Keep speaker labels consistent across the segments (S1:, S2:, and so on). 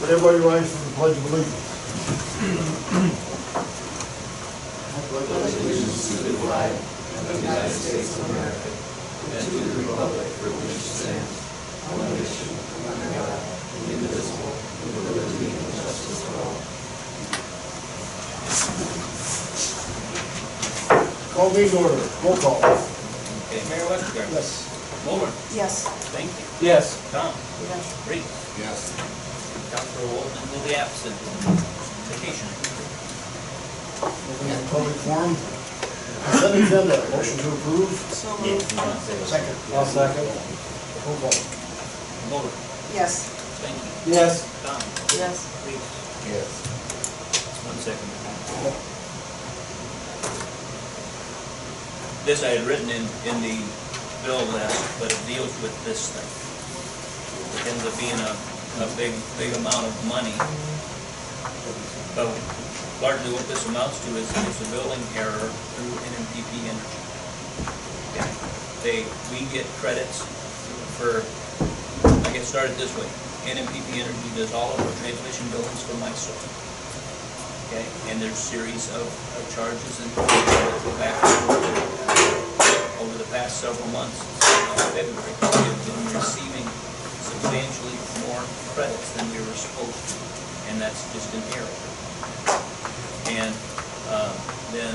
S1: Would everybody rise for the pledge of allegiance? Call meeting order, roll call.
S2: Okay, Mayor Westergaard.
S1: Yes.
S2: Mulder.
S3: Yes.
S2: Thank you.
S4: Yes.
S2: Tom.
S3: Yes.
S2: Reed.
S4: Yes.
S2: Dr. Walton will be absent. Vacation.
S1: Open the public forum. Consent agenda, motion to approve.
S3: So moved.
S1: Second.
S4: I'll second.
S1: Roll call.
S2: Mulder.
S3: Yes.
S2: Thank you.
S4: Yes.
S2: Tom.
S3: Yes.
S2: Reed.
S4: Yes.
S2: One second. This I had written in, in the bill that, but it deals with this thing. It ends up being a, a big, big amount of money. But largely what this amounts to is, is a billing error through NMPP Energy. They, we get credits for, I get started this way. NMPP Energy does all of our transmission billings for myself. Okay, and there's series of, of charges and that go back and forth uh, over the past several months, since February, we've been receiving substantially more credits than we were supposed to, and that's just an error. And, um, then,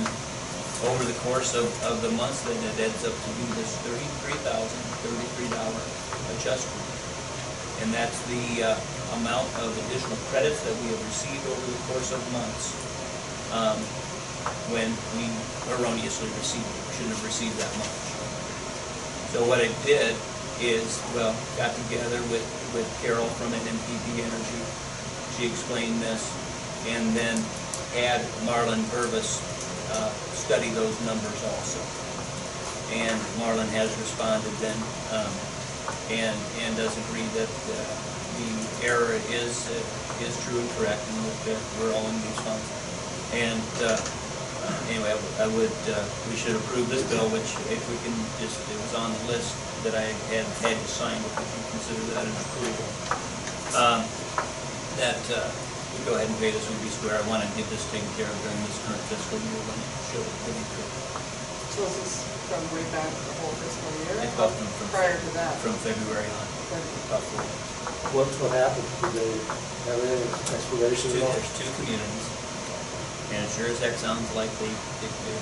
S2: over the course of, of the months, then it adds up to be this thirty-three thousand, thirty-three dollar adjustment. And that's the uh, amount of additional credits that we have received over the course of months um, when we erroneously received, shouldn't have received that much. So what I did is, well, got together with, with Carol from NMPP Energy. She explained this, and then had Marlon Purvis uh, study those numbers also. And Marlon has responded then, um, and, and does agree that uh, the error is, uh, is true and correct, and that we're all in these funds. And uh, anyway, I would- I would, uh, we should approve this bill, which if we can just, it was on the list that I had, had to sign, if we can consider that an approval. Um, That, uh, we go ahead and pay this, would be square, I want to get this taken care of during this current fiscal year when it should, when it could.
S3: So this is from way back the whole fiscal year?
S2: It's up from- from-
S3: Prior to that?
S2: from February on,
S3: But-
S2: about four weeks.
S4: What's what happened? Did they have any explanation
S2: Two,
S4: at all?
S2: there's two communities, and it sure as heck sounds like they, they, they,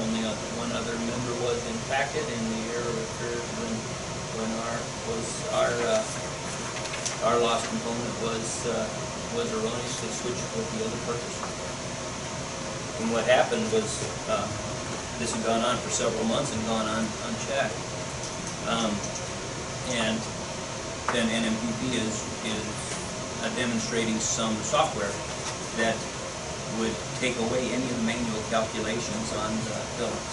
S2: only o- one other member was impacted, and the error occurred when, when our, was, our, uh, our loss component was, uh, was erroneously switched with the other purchase. And what happened was, uh, this had gone on for several months and gone on unchecked. Um, and then NMPP is, is uh, demonstrating some software that would take away any of the manual calculations on the billings.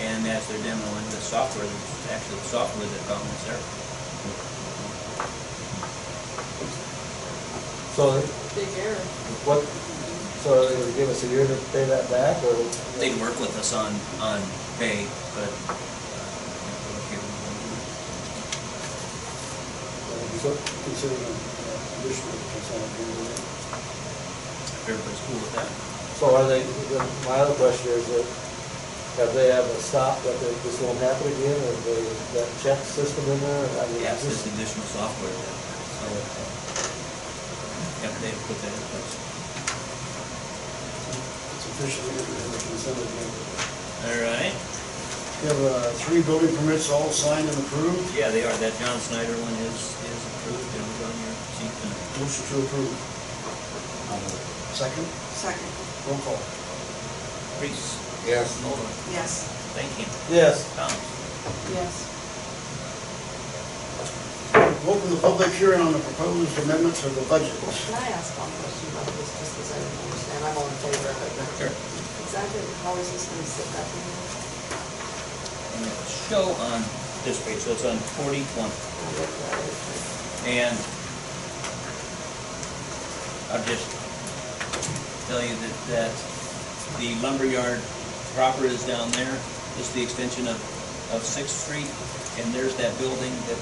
S2: And as they're demoing the software, it's actually the software that found this error.
S4: So
S3: Big error.
S4: what, so they would give us a year to pay that back or?
S2: They work with us on, on pay, but uh, we're okay with them.
S4: So considering uh, additional consent agenda.
S2: if everybody's cool with that.
S4: So are they, then my other question is that have they ever stopped that they- this won't happen again? Have they, that check system in there? I mean,
S2: Yeah, it's
S4: just-
S2: just additional software that, so, yeah, they put that in place.
S1: It's officially in the consent agenda.
S2: All right.
S1: We have uh, three building permits all signed and approved.
S2: Yeah, they are. That John Snyder one is, is approved and is on your seat tonight.
S1: Motion to approve. Second,
S3: Second.
S1: roll call.
S2: Reese.
S4: Yes.
S2: Mulder.
S3: Yes.
S2: Thank you.
S4: Yes.
S2: Tom.
S3: Yes.
S1: Open the public hearing on the proposed amendments of the budget.
S3: Can I ask one question about this, just because I don't understand, I'm all in favor of it, but.
S2: Sure.
S3: Exactly, how is this gonna sit back in here?
S2: And it'll show on this page, so it's on forty twenty.
S3: I'll look at it.
S2: And I'll just tell you that, that the lumberyard proper is down there, just the extension of, of Sixth Street, and there's that building that